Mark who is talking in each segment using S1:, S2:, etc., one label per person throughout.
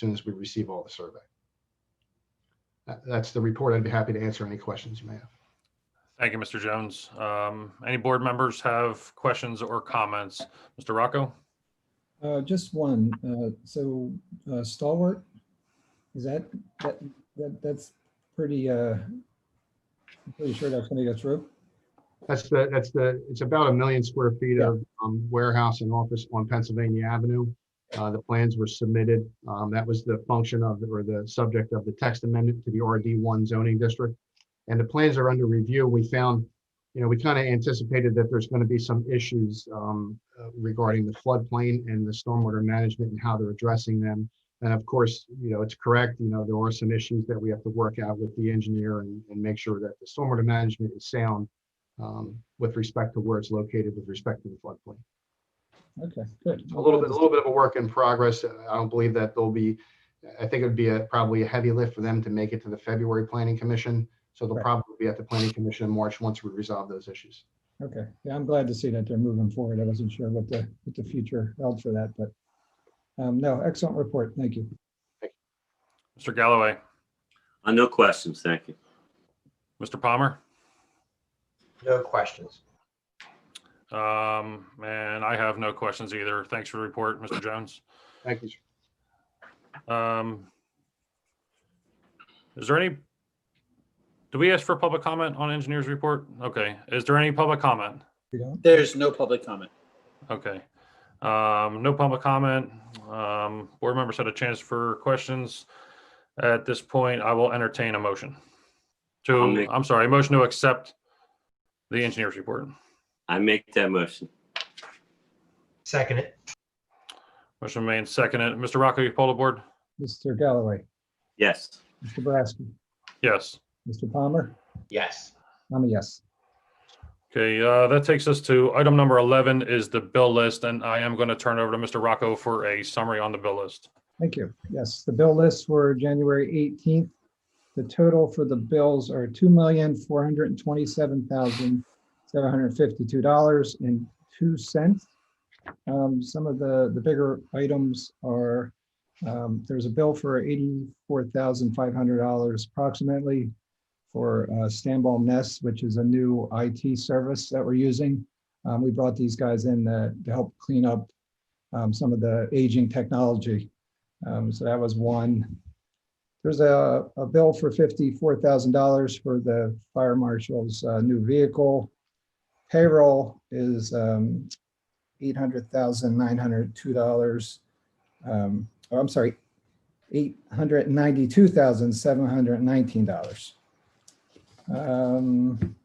S1: soon as we receive all the survey. That- That's the report. I'd be happy to answer any questions you may have.
S2: Thank you, Mr. Jones. Um, Any board members have questions or comments? Mr. Rocco?
S3: Uh, just one, uh, so uh, stalwart, is that, that, that, that's pretty, uh, I'm pretty sure that's gonna go through?
S1: That's the, that's the, it's about a million square feet
S3: Yeah.
S1: of um, warehouse and office on Pennsylvania Avenue. Uh, The plans were submitted. Um, That was the function of, or the subject of the text amendment to the RD1 zoning district. And the plans are under review. We found, you know, we kind of anticipated that there's going to be some issues um, uh, regarding the floodplain and the stormwater management and how they're addressing them. And of course, you know, it's correct, you know, there are some issues that we have to work out with the engineer and, and make sure that the stormwater management is sound um, with respect to where it's located with respect to the floodplain.
S3: Okay, good.
S1: A little bit, a little bit of a work in progress. Uh, I don't believe that there'll be, I think it would be a, probably a heavy lift for them to make it to the February Planning Commission. So they'll
S3: Right.
S1: probably be at the Planning Commission in March once we resolve those issues.
S3: Okay, yeah, I'm glad to see that they're moving forward. I wasn't sure what the, what the future held for that, but, um, no, excellent report. Thank you.
S2: Mr. Galloway?
S4: Uh, no questions, thank you.
S2: Mr. Palmer?
S5: No questions.
S2: Um, And I have no questions either. Thanks for the report, Mr. Jones.
S1: Thank you. sir.
S2: Um, Is there any, do we ask for public comment on engineer's report? Okay, is there any public comment?
S3: You don't?
S5: There's no public comment.
S2: Okay. Um, no public comment. Um, board members had a chance for questions. At this point, I will entertain a motion
S4: I'll
S2: to,
S4: make-
S2: I'm sorry, a motion to accept the engineer's report.
S4: I make that motion.
S5: Second it.
S2: Motion made, and seconded. Mr. Rocco, you poll the board?
S3: Mr. Galloway,
S4: Yes.
S3: Mr. Boraski,
S2: Yes.
S3: Mr. Palmer,
S5: Yes.
S3: I'm a yes.
S2: Okay, uh, that takes us to item number 11 is the bill list, and I am going to turn it over to Mr. Rocco for a summary on the bill list.
S3: Thank you. Yes, the bill lists were January 18th. The total for the bills are $2,427,752.02. Um, Some of the, the bigger items are, um, there's a bill for $84,500 approximately for uh, Stanball Nest, which is a new IT service that we're using. Um, We brought these guys in uh, to help clean up um, some of the aging technology. Um, so that was one. There's a, a bill for fifty-four thousand dollars for the fire marshal's, uh, new vehicle. Payroll is, um, eight hundred thousand, nine hundred, two dollars. Um, oh, I'm sorry, eight hundred ninety-two thousand, seven hundred nineteen dollars. Um,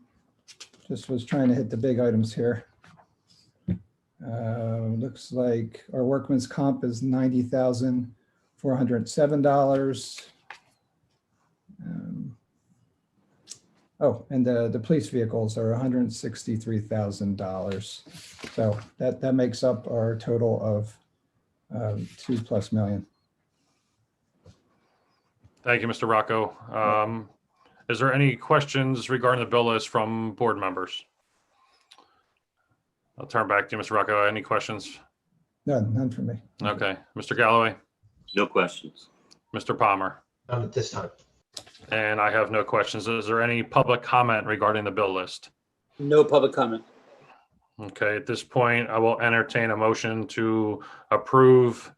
S3: just was trying to hit the big items here. Uh, looks like our workman's comp is ninety thousand, four hundred and seven dollars. Um, Oh, and the, the police vehicles are hundred and sixty-three thousand dollars. So that, that makes up our total of um, two plus million.
S2: Thank you, Mr. Rocco. Um, is there any questions regarding the bill list from board members? I'll turn back to you, Mr. Rocco. Any questions?
S3: None, none for me.
S2: Okay, Mr. Galloway,
S4: No questions.
S2: Mr. Palmer,
S5: None at this time.
S2: and I have no questions. Is there any public comment regarding the bill list?
S6: No public comment.
S2: Okay, at this point, I will entertain a motion to approve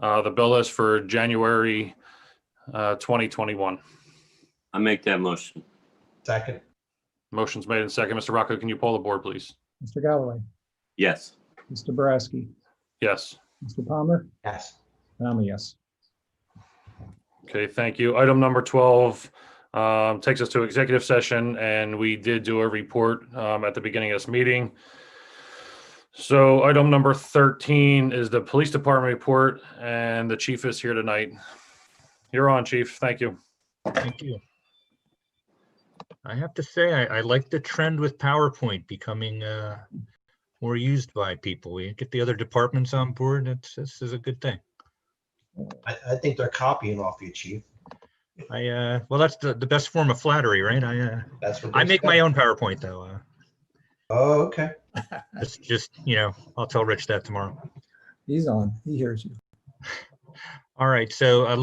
S2: uh, the bill list for January uh, 2021.
S4: I make that motion.
S5: Second.
S2: Motion's made and second. Mr. Rocco, can you poll the board, please?
S3: Mr. Galloway,
S4: Yes.
S3: Mr. Boraski,
S2: Yes.
S3: Mr. Palmer,
S5: Yes.
S3: and I'm a yes.
S2: Okay, thank you. Item number 12 um, takes us to executive session, and we did do a report um, at the beginning of this meeting. So item number 13 is the police department report, and the chief is here tonight. You're on, chief. Thank you.
S7: Thank you. I have to say, I, I like the trend with PowerPoint becoming uh, more used by people. We get the other departments on board. It's, this is a good thing.
S5: I, I think they're copying off you, chief.
S7: I, uh, well, that's the, the best form of flattery, right? I, uh,
S5: That's what.
S7: I
S5: they
S7: make
S5: said.
S7: my own PowerPoint though. uh,
S5: Oh, okay.
S7: It's just, you know, I'll tell Rich that tomorrow.
S3: He's on, he hears you.
S7: All right, so uh,